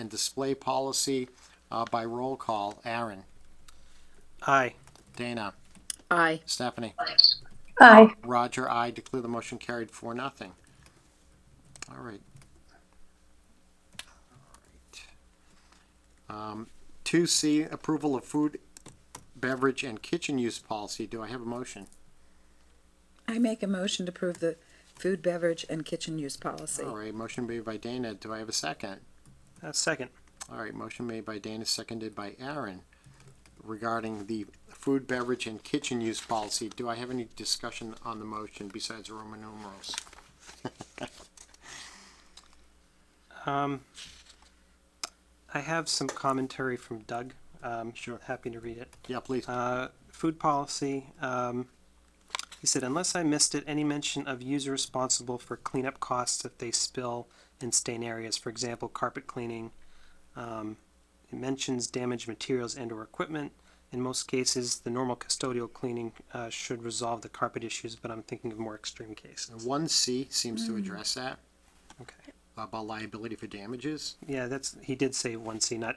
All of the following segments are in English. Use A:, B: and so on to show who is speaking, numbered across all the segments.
A: and display policy uh, by roll call. Aaron,
B: Aye.
A: Dana,
C: Aye.
A: Stephanie,
D: Aye.
A: Roger, I declare the motion carried for nothing. All right. Um, Two C, approval of food, beverage, and kitchen use policy. Do I have a motion?
C: I make a motion to approve the food, beverage, and kitchen use policy.
A: All right, motion made by Dana. Do I have a second?
B: Uh, second.
A: All right, motion made by Dana, seconded by Aaron regarding the food, beverage, and kitchen use policy. Do I have any discussion on the motion besides Roman numerals?
B: Um, I have some commentary from Doug. Um,
A: Sure.
B: Happy to read it.
A: Yeah, please.
B: Uh, food policy. Um, he said, unless I missed it, any mention of user responsible for cleanup costs if they spill and stain areas, for example, carpet cleaning. Um, it mentions damaged materials and/or equipment. In most cases, the normal custodial cleaning uh, should resolve the carpet issues, but I'm thinking of more extreme cases.
A: One C seems to address that
B: Okay.
A: about liability for damages.
B: Yeah, that's he did say one C, not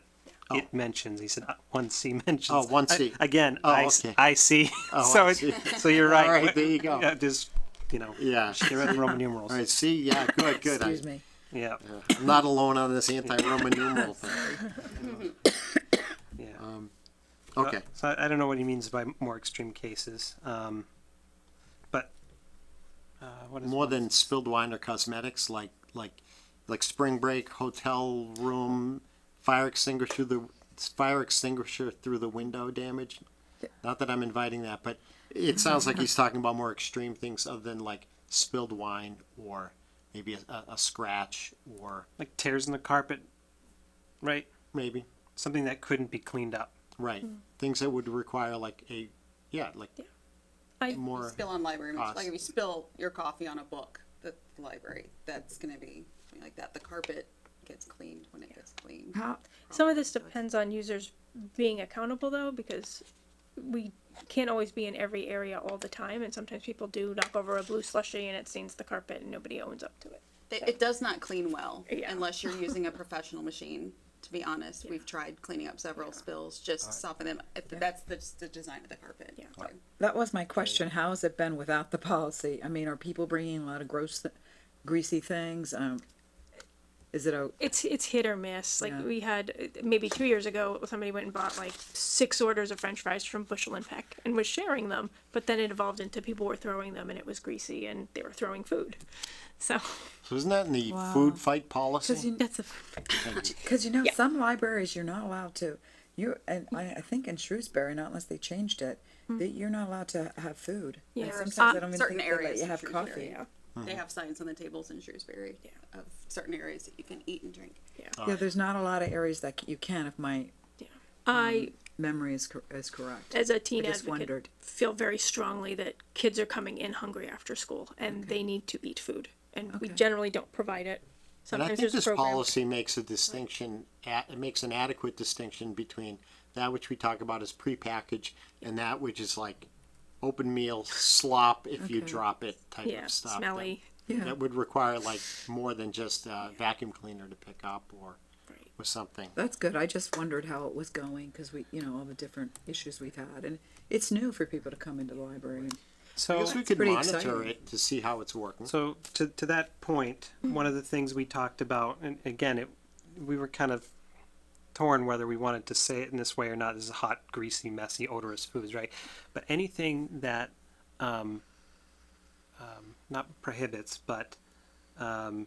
A: Oh.
B: it mentions. He said uh, one C mentions.
A: Oh, one
B: I-
A: C.
B: again,
A: Oh,
B: I, s-
A: okay.
B: I see.
A: Oh,
B: so
A: I
B: it-
A: see.
B: so you're right.
A: All right, there you go.
B: Yeah, just you know,
A: Yeah.
B: they're in Roman numerals.
A: All right, C, yeah, good, good. I-
C: Excuse me.
B: Yeah,
A: I'm not alone on this anti-Roman numeral thing.
B: yeah. So-
A: Um, Okay,
B: So I, I don't know what he means by more extreme cases, um, but uh, what is
A: more than spilled wine or cosmetics, like, like, like spring break, hotel room, fire extinguisher through the, fire extinguisher through the window damage. Not that I'm inviting that, but it sounds like he's talking about more extreme things other than like spilled wine or maybe a, a- a scratch or
B: like tears in the carpet, right?
A: maybe.
B: Something that couldn't be cleaned up.
A: Right. Things that would require like a, yeah, like,
E: I,
A: more
F: you spill on library
A: cost.
F: materials. Like if you spill your coffee on a book, the library, that's gonna be something like that. The carpet gets cleaned when it gets cleaned.
C: How,
D: Some of this depends on users being accountable though, because we can't always be in every area all the time, and sometimes people do knock over a blue slushy and it stains the carpet and nobody owns up to it.
F: It, it does not clean well
D: Yeah.
F: unless you're using a professional machine. To be honest, we've tried cleaning up several spills just to soften them. If That's the, just the design of the carpet.
D: Yeah.
F: So-
C: That was my question. How has it been without the policy? I mean, are people bringing a lot of gross, th- greasy things? Um, is it a,
D: It's it's hit or miss. Like
C: Yeah.
D: we had uh, maybe two years ago, somebody went and bought like six orders of French fries from Bushel and Peck and was sharing them, but then it evolved into people were throwing them and it was greasy and they were throwing food. So
A: so isn't that in the food fight policy?
C: cause you,
D: that's a
C: cause you know,
D: Yeah.
C: some libraries you're not allowed to, you, and I, I think in Shrewsbury, not unless they changed it, that you're not allowed to have food. And
D: Hmm. Yeah. There are
C: sometimes I
D: some-
C: don't even
F: Uh, certain
C: think they let
F: areas
C: you
F: of
C: have
F: Shrewsbury.
C: coffee.
D: yeah
A: Mm-hmm.
F: They have signs on the tables in Shrewsbury of certain areas that you can eat and drink.
D: yeah.
C: Yeah, there's not a lot of areas that c- you can if my um,
D: I
C: memory is, cor- is correct.
D: as a teen
C: I just
D: advocate
C: wondered.
D: feel very strongly that kids are coming in hungry after school and they need to eat food and we
C: Okay.
D: generally don't provide it.
A: And I
D: Sometimes
A: think
D: there's
A: this
D: programs.
A: policy makes a distinction, a- it makes an adequate distinction between that which we talk about as prepackaged and that which is like open meal slop if you
C: Okay.
A: drop it type
D: yeah,
A: of stuff. that-
D: smelly.
C: Yeah.
A: That would require like more than just a vacuum cleaner to pick up or,
D: Right.
A: or something.
C: That's good. I just wondered how it was going because we, you know, all the different issues we've had, and it's new for people to come into the library. And
B: So
A: I guess we
C: It's
A: could
C: pretty
A: monitor
C: exciting.
A: it to see how it's working.
B: So to to that point, one of the things we talked about, and again, it we were kind of torn whether we wanted to say it in this way or not. This is hot, greasy, messy, odorous foods, right? But anything that um, um, not prohibits, but um,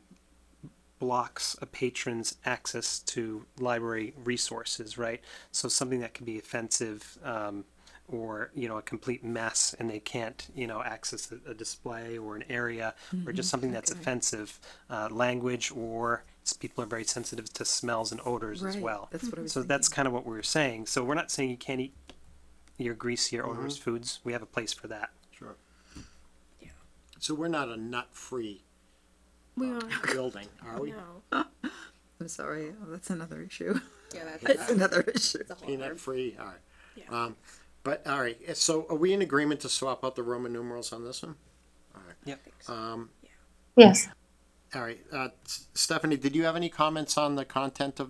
B: blocks a patron's access to library resources, right? So something that can be offensive um, or, you know, a complete mess and they can't, you know, access a, a display or an area or
C: Mm-hmm.
B: just something that's offensive, uh, language or s- people are very sensitive to smells and odors as
C: Right,
B: well.
C: that's what I was
B: so that's kind of what we were saying. So we're not saying you can't eat your greasy or
C: Mm-hmm.
B: odorous foods. We have a place for that.
A: Sure. So we're not a nut-free
D: We are
A: building, are we?
D: no.
C: I'm sorry, oh, that's another issue.
F: Yeah, that's,
C: That's
F: that's
C: another issue.
F: a whole other-
A: Peanut free, all right.
D: Yeah.
A: Um, but, all right, eh, so are we in agreement to swap out the Roman numerals on this one?
B: Yep.
A: Um,
D: Yeah.
A: All right, uh, S- Stephanie, did you have any comments on the content of